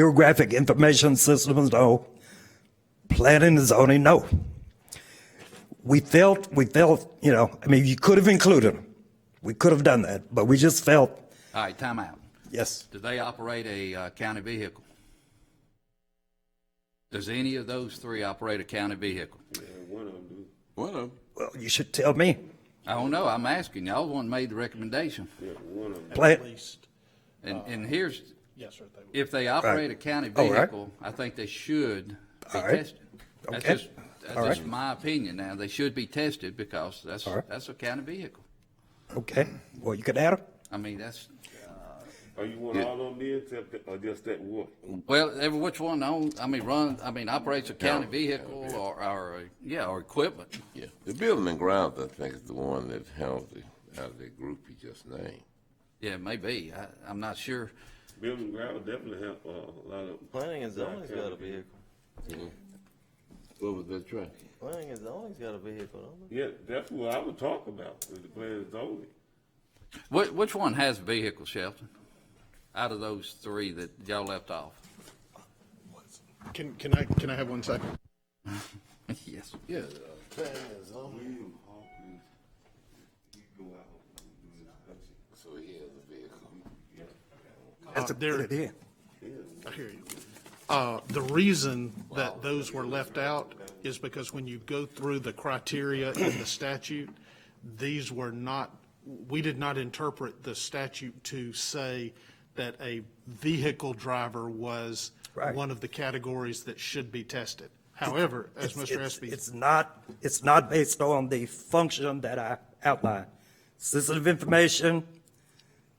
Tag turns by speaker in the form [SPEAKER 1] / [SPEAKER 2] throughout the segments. [SPEAKER 1] Geographic information systems, no. Planning and zoning, no. We felt, we felt, you know, I mean, you could have included them. We could have done that, but we just felt,
[SPEAKER 2] All right, time out.
[SPEAKER 1] yes,
[SPEAKER 2] Do they operate a uh, county vehicle? Does any of those three operate a county vehicle?
[SPEAKER 3] One of them.
[SPEAKER 1] well, you should tell me.
[SPEAKER 2] I don't know, I'm asking, y'all the one made the recommendation.
[SPEAKER 1] Plan,
[SPEAKER 2] And, and here's,
[SPEAKER 4] Yes, sir, they would.
[SPEAKER 2] if they operate a county
[SPEAKER 1] All right.
[SPEAKER 2] vehicle, I think they should be
[SPEAKER 1] All right.
[SPEAKER 2] tested. That's
[SPEAKER 1] Okay.
[SPEAKER 2] just,
[SPEAKER 1] All
[SPEAKER 2] that's just
[SPEAKER 1] right.
[SPEAKER 2] my opinion now, they should be tested because that's,
[SPEAKER 1] All right.
[SPEAKER 2] that's a county vehicle.
[SPEAKER 1] okay, well, you could add them.
[SPEAKER 2] I mean, that's,
[SPEAKER 3] Are you want all of them in except, that- or just that one?
[SPEAKER 2] well, every which one, own- I mean, run, I mean, operates a county vehicle or, or, a- yeah, or equipment.
[SPEAKER 5] Yeah, the building and grounds, I think, is the one that handles the, out of the group you just named.
[SPEAKER 2] Yeah, maybe, I, I'm not sure.
[SPEAKER 3] Building ground definitely have uh, a lot of.
[SPEAKER 6] Planning and zoning's got a vehicle.
[SPEAKER 5] What was that track?
[SPEAKER 6] Planning and zoning's got a vehicle, don't
[SPEAKER 3] Yeah, that's what I would talk about, is the plan is only.
[SPEAKER 2] Which, which one has a vehicle, Shelton? Out of those three that y'all left off?
[SPEAKER 4] Can, can I, can I have one second?
[SPEAKER 2] Yes.
[SPEAKER 5] Yeah. uh, So he has a vehicle.
[SPEAKER 1] That's a
[SPEAKER 4] there-
[SPEAKER 1] good idea.
[SPEAKER 4] I hear you. Uh, the reason that those were left out is because when you go through the criteria in the statute, these were not, we did not interpret the statute to say that a vehicle driver was
[SPEAKER 1] Right.
[SPEAKER 4] one of the categories that should be tested. However, as
[SPEAKER 1] It's-
[SPEAKER 4] Mr.
[SPEAKER 1] it's-
[SPEAKER 4] Espy.
[SPEAKER 1] It's not, it's not based on the function that I outlined. Sensitive information,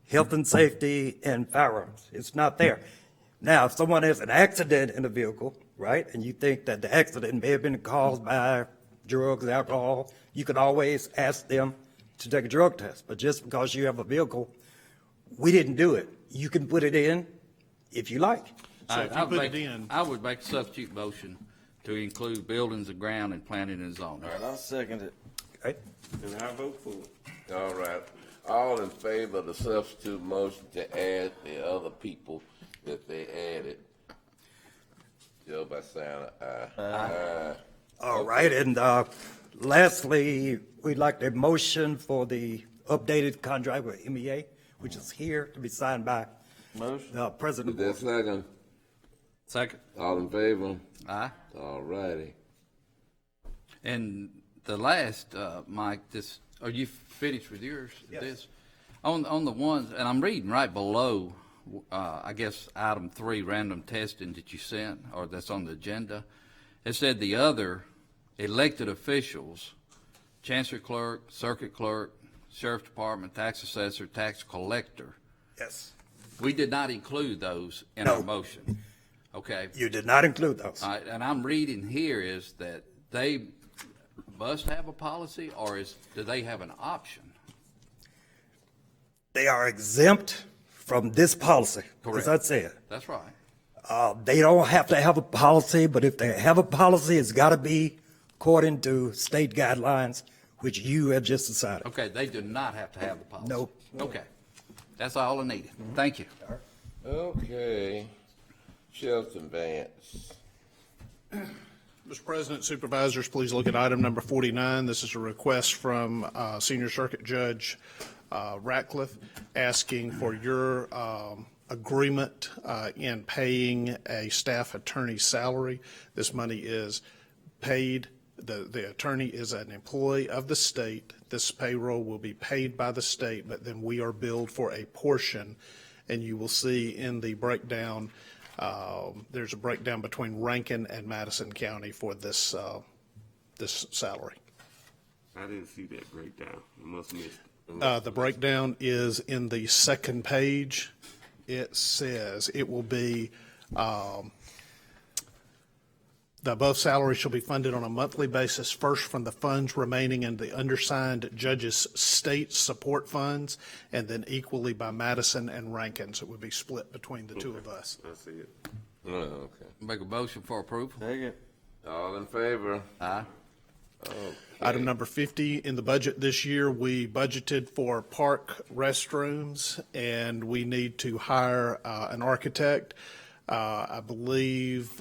[SPEAKER 1] health and safety, and firearms. It's not there. Now, if someone has an accident in a vehicle, right, and you think that the accident may have been caused by drugs, alcohol, you can always ask them to take a drug test. But just because you have a vehicle, we didn't do it. You can put it in if you like.
[SPEAKER 4] So
[SPEAKER 2] Alright,
[SPEAKER 4] if you
[SPEAKER 2] I would
[SPEAKER 4] put it
[SPEAKER 2] make-
[SPEAKER 4] in-
[SPEAKER 2] I would make a substitute motion to include buildings and ground and planning and zoning.
[SPEAKER 6] they? I'll second it.
[SPEAKER 1] Okay?
[SPEAKER 3] And I vote for it.
[SPEAKER 5] All right. All in favor of the substitute motion to add the other people that they added? Joe by sign of aye. Aye.
[SPEAKER 1] All right, and uh, lastly, we'd like the motion for the updated contract with MEA, which is here to be signed by
[SPEAKER 6] Motion.
[SPEAKER 1] the
[SPEAKER 5] Is
[SPEAKER 1] president.
[SPEAKER 5] that second?
[SPEAKER 2] Second.
[SPEAKER 5] All in favor?
[SPEAKER 2] Aye.
[SPEAKER 5] All righty.
[SPEAKER 2] And the last, uh, Mike, this, are you finished with yours? This, on, on the ones, and I'm reading right below, uh, I guess, item three, random testing that you sent, or that's on the agenda. It said the other elected officials, chancellor clerk, circuit clerk, sheriff's department, tax assessor, tax collector.
[SPEAKER 1] Yes,
[SPEAKER 2] We did not include those in our
[SPEAKER 1] No.
[SPEAKER 2] motion. Okay?
[SPEAKER 1] you did not include those.
[SPEAKER 2] All right, and I'm reading here is that they must have a policy, or is, do they have an option?
[SPEAKER 1] They are exempt from this policy, as I
[SPEAKER 2] Correct.
[SPEAKER 1] said.
[SPEAKER 2] That's right.
[SPEAKER 1] Uh, They don't have to have a policy, but if they have a policy, it's got to be according to state guidelines, which you have just decided.
[SPEAKER 2] Okay, they do not have to have the policy.
[SPEAKER 1] Nope.
[SPEAKER 2] Okay, that's all I needed. Thank you.
[SPEAKER 5] Okay. Shelton Vance.
[SPEAKER 4] Mr. President, supervisors, please look at item number 49. This is a request from uh, Senior Circuit Judge uh, Ratcliffe asking for your um, agreement uh, in paying a staff attorney's salary. This money is paid, the the attorney is an employee of the state. This payroll will be paid by the state, but then we are billed for a portion. And you will see in the breakdown um, There's a breakdown between Rankin and Madison County for this, uh, this salary.
[SPEAKER 3] I didn't see that breakdown. I must have missed it.
[SPEAKER 4] Uh, The breakdown is in the second page. It says it will be, um, the above salary shall be funded on a monthly basis, first from the funds remaining in the undersigned judges' state support funds, and then equally by Madison and Rankin. So it would be split between the two of us.
[SPEAKER 3] I see it.
[SPEAKER 5] Oh, okay.
[SPEAKER 2] Make a motion for approval.
[SPEAKER 6] Second.
[SPEAKER 5] All in favor?
[SPEAKER 2] Aye.
[SPEAKER 4] Item number 50, in the budget this year, we budgeted for park restrooms, and we need to hire uh, an architect. Uh, I believe